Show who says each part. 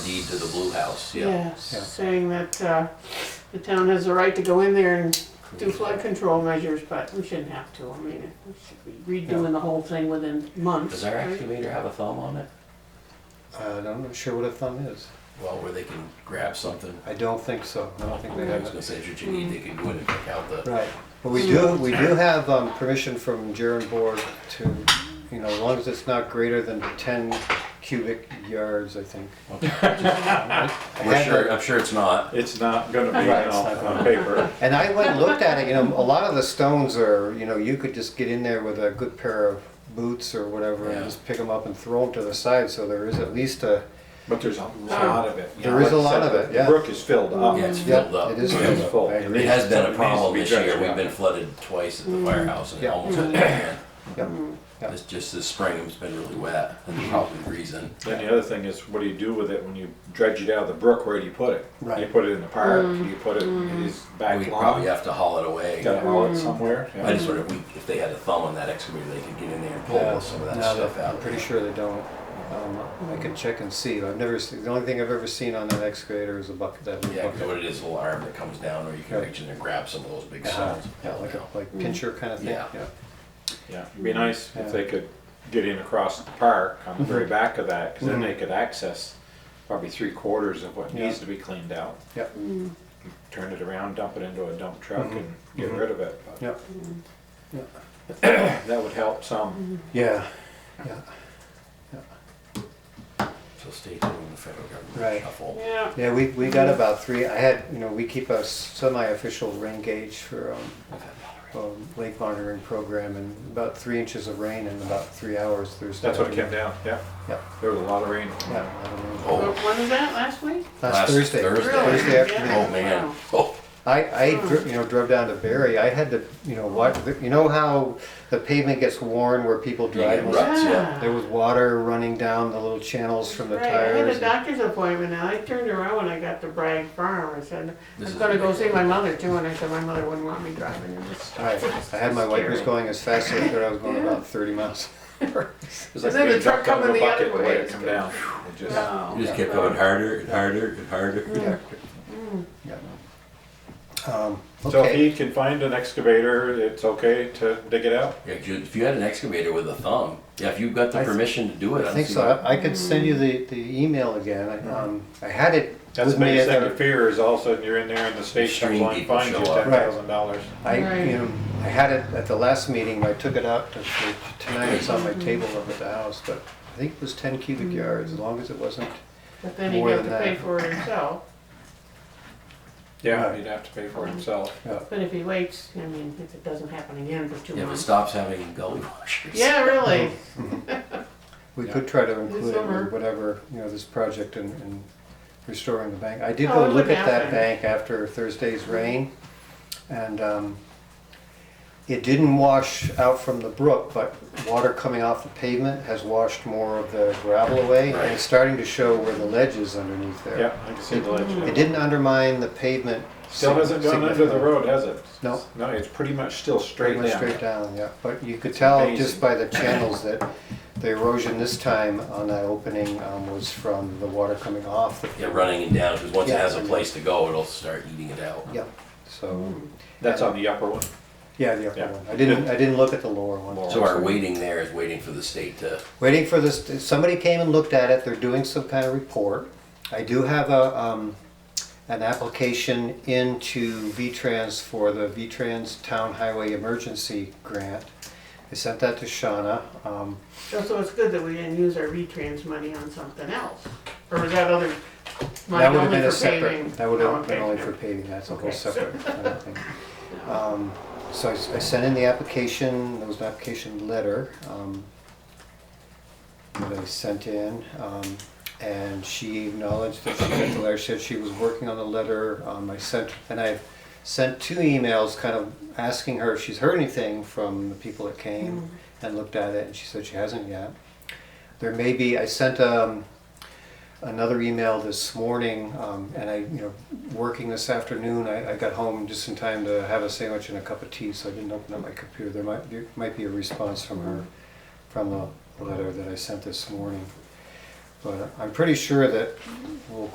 Speaker 1: deed to the Blue House, yeah.
Speaker 2: Yeah, saying that uh, the town has the right to go in there and do flood control measures, but we shouldn't have to. I mean, we should be redoing the whole thing within months.
Speaker 1: Does our
Speaker 2: right?
Speaker 1: excavator have a thumb on it?
Speaker 3: Uh, I'm not sure what a thumb is.
Speaker 1: Well, where they can grab something.
Speaker 3: I don't think so. I don't think they
Speaker 1: I was
Speaker 3: have
Speaker 1: gonna
Speaker 3: it.
Speaker 1: say, did you need, they can go in and pick out the,
Speaker 3: Right. But we do, we do have um, permission from Jaren Board to, you know, as long as it's not greater than 10 cubic yards, I think. I
Speaker 1: we're
Speaker 3: had
Speaker 1: sure,
Speaker 3: that-
Speaker 1: I'm sure it's not.
Speaker 4: It's not gonna be
Speaker 3: Right, it's not
Speaker 4: on, on paper.
Speaker 3: And I went and looked at it, you know, a lot of the stones are, you know, you could just get in there with a good pair of boots or whatever
Speaker 1: Yeah.
Speaker 3: and just pick them up and throw them to the side, so there is at least a,
Speaker 4: But there's a lot of it.
Speaker 3: There is a lot of it, yeah.
Speaker 4: Brook is filled up.
Speaker 1: Yeah, it's
Speaker 3: yeah,
Speaker 1: filled up.
Speaker 3: it is
Speaker 4: It's
Speaker 3: filled
Speaker 4: full.
Speaker 3: up. I
Speaker 1: It
Speaker 3: agree.
Speaker 1: has been a
Speaker 4: Something needs to
Speaker 1: problem
Speaker 4: be
Speaker 1: this year.
Speaker 4: dredged
Speaker 1: We've
Speaker 4: out.
Speaker 1: been flooded twice at the firehouse and it
Speaker 3: Mm. Yeah.
Speaker 1: almost happened.
Speaker 3: Yep. Mm-hmm. Yeah.
Speaker 1: It's just this spring, it's been really wet and probably the reason.
Speaker 3: Mm-hmm.
Speaker 4: Then the other thing is, what do you do with it when you dredge it out of the brook? Where do you put it?
Speaker 3: Right.
Speaker 4: You put it in the park,
Speaker 3: Mm.
Speaker 4: you put it in his
Speaker 1: We
Speaker 3: Mm-hmm.
Speaker 4: back lawn,
Speaker 1: probably have to haul it away.
Speaker 4: gotta haul
Speaker 3: Mm.
Speaker 4: it somewhere. yeah.
Speaker 1: I just wonder if we, if they had a thumb on that excavator, they could get in there and
Speaker 3: Yeah,
Speaker 1: pull some of that
Speaker 3: no,
Speaker 1: stuff out.
Speaker 3: I'm pretty sure they don't. Um, I can check and see. I've never, seen the only thing I've ever seen on that excavator is a bucket, that little
Speaker 1: Yeah, you know
Speaker 3: bucket.
Speaker 1: what it is, a little arm that comes down, or you can
Speaker 3: Yeah.
Speaker 1: reach in and grab some of those big
Speaker 3: Uh-huh.
Speaker 1: stones.
Speaker 3: Yeah,
Speaker 1: Hell,
Speaker 3: like a,
Speaker 1: no.
Speaker 3: like pincher kind of thing,
Speaker 1: Hmm. Yeah.
Speaker 3: yeah.
Speaker 4: Yeah, it'd be nice
Speaker 3: Yeah. Mm-hmm.
Speaker 4: if they could get in across the park on the very back of that, because then they could access probably three quarters of what
Speaker 3: Yeah.
Speaker 4: needs to be cleaned out.
Speaker 3: Yeah.
Speaker 4: Turn it around, dump it into a dump truck and get
Speaker 3: Mhm.
Speaker 4: rid of it. but
Speaker 3: Yeah,
Speaker 4: That would help some.
Speaker 3: yeah,
Speaker 1: So stay tuned, the federal government
Speaker 3: Right.
Speaker 1: shuffle.
Speaker 2: Yeah,
Speaker 3: yeah, we, we got about three, I had, you know, we keep a semi-official rain gauge for, um, um, lake monitoring program and about three inches of rain in about three hours. There's
Speaker 4: That's what it came down, yeah.
Speaker 3: Yeah.
Speaker 4: There was a lot of rain.
Speaker 3: Yeah, I don't know.
Speaker 2: Wh-
Speaker 1: Oh,
Speaker 2: when was that, last week?
Speaker 3: Last Thursday.
Speaker 1: Thursday.
Speaker 2: Really?
Speaker 3: Thursday afternoon.
Speaker 1: Oh, man.
Speaker 2: Wow.
Speaker 1: Oh,
Speaker 3: I, I, dri- you know, drove down to Barry. I had to, you know, watch, you know how the pavement gets worn where people drive?
Speaker 1: get ruts, yeah.
Speaker 3: There was water running down the little channels from the
Speaker 2: Right, I had
Speaker 3: tires.
Speaker 2: a doctor's appointment and I turned around when I got to Bragg Farm. I said,
Speaker 1: This
Speaker 2: I'm
Speaker 1: is
Speaker 2: gonna go see
Speaker 1: ridiculous.
Speaker 2: my mother too, and I said, my mother wouldn't want me driving in this.
Speaker 3: I, I had my wipers going as fast as I could. I was going about thirty miles.
Speaker 4: It was like
Speaker 2: And then the
Speaker 4: being
Speaker 2: truck
Speaker 4: dumped out of
Speaker 2: coming
Speaker 4: a
Speaker 2: the other
Speaker 4: bucket way
Speaker 2: way
Speaker 4: it
Speaker 2: is
Speaker 4: come
Speaker 2: good.
Speaker 4: down. It just-
Speaker 1: it just kept going harder and harder and harder.
Speaker 3: Yeah. Um,
Speaker 4: So if
Speaker 3: Okay,
Speaker 4: he can find an excavator, it's okay to dig it out?
Speaker 1: Yeah, if you- if you had an excavator with a thumb, yeah, if you've got the
Speaker 3: I th-
Speaker 1: permission to do it, I
Speaker 3: I
Speaker 1: don't
Speaker 3: think
Speaker 1: see
Speaker 3: so.
Speaker 1: why-
Speaker 3: I I could send you the, the email again. I,
Speaker 4: Mm-hmm.
Speaker 3: um, I had it
Speaker 4: That's
Speaker 3: with
Speaker 4: the
Speaker 3: me
Speaker 4: biggest
Speaker 3: at
Speaker 4: thing
Speaker 3: our-
Speaker 4: to fear is all of a sudden you're in there and the state comes
Speaker 1: Extreme
Speaker 4: along and
Speaker 1: people
Speaker 4: finds you
Speaker 1: show up.
Speaker 4: ten thousand dollars.
Speaker 3: I,
Speaker 2: Right.
Speaker 3: you know, I had it at the last meeting, I took it out to- for tonight, it's on
Speaker 2: Mm-hmm.
Speaker 3: my table over at the house, but I think it was ten cubic yards, as long as it wasn't,
Speaker 2: But then he
Speaker 3: More
Speaker 2: got
Speaker 3: than
Speaker 2: to pay
Speaker 3: that.
Speaker 2: for it himself.
Speaker 4: Yeah,
Speaker 3: Right.
Speaker 4: he'd have to pay for it himself.
Speaker 3: uh,
Speaker 2: But if he waits, I mean, if it doesn't happen again for two
Speaker 1: Yeah, if it
Speaker 2: months.
Speaker 1: stops having gully washers.
Speaker 2: Yeah, really.
Speaker 3: we could try to include it
Speaker 2: summer.
Speaker 3: in whatever, you know, this project in, in restoring the bank. I did
Speaker 2: Oh,
Speaker 3: go
Speaker 2: it
Speaker 3: look
Speaker 2: wouldn't
Speaker 3: at that
Speaker 2: happen.
Speaker 3: bank after Thursday's rain, and, um, it didn't wash out from the brook, but water coming off the pavement has washed more of the gravel away, and it's starting to show where the ledge is underneath there.
Speaker 4: Yeah, I can see the
Speaker 3: It
Speaker 4: ledge.
Speaker 3: didn't undermine the pavement.
Speaker 4: Still hasn't gone under the
Speaker 3: significantly.
Speaker 4: road, has it?
Speaker 3: No.
Speaker 4: No, it's pretty much still
Speaker 3: Pretty
Speaker 4: straight
Speaker 3: much
Speaker 4: down.
Speaker 3: straight down, yeah. But you could tell just
Speaker 4: amazing.
Speaker 3: by the channels that the erosion this time on that opening um, was from the water coming off. the-
Speaker 1: Yeah, running it down, because once it
Speaker 3: Yeah.
Speaker 1: has a place to go, it'll start eating it out.
Speaker 3: Yep, so,
Speaker 4: That's on the upper one.
Speaker 3: yeah, the upper
Speaker 4: Yeah.
Speaker 3: one. I didn't, I didn't look at the lower one.
Speaker 1: So our waiting there is waiting for the state to,
Speaker 3: Waiting for this, somebody came and looked at it, they're doing some kind of report. I do have a, um, an application into V-Trans for the V-Trans Town Highway Emergency Grant. I sent that to Shauna. Um,
Speaker 2: So so it's good that we didn't use our retrans money on something else, or was that other money
Speaker 3: That would have
Speaker 2: only
Speaker 3: been a
Speaker 2: for paving?
Speaker 3: separate, that would
Speaker 2: Oh,
Speaker 3: have been
Speaker 2: okay.
Speaker 3: only for paving, that's a whole
Speaker 2: Okay.
Speaker 3: separate kind of thing. Um, So I s- I sent in the application, there was an application letter um, that I sent in. um, And she acknowledged that she got the letter, said she was working on the letter. Um, I sent, and I sent two emails kind of asking her if she's heard anything from the people that came and looked at it, and she said she hasn't yet. There may be, I sent um, another email this morning, um, and I, you know, working this afternoon, I, I got home just in time to have a sandwich and a cup of tea, so I didn't open up my computer. There might, there might be a response from her, from the letter that I sent this morning. But I'm pretty sure that we'll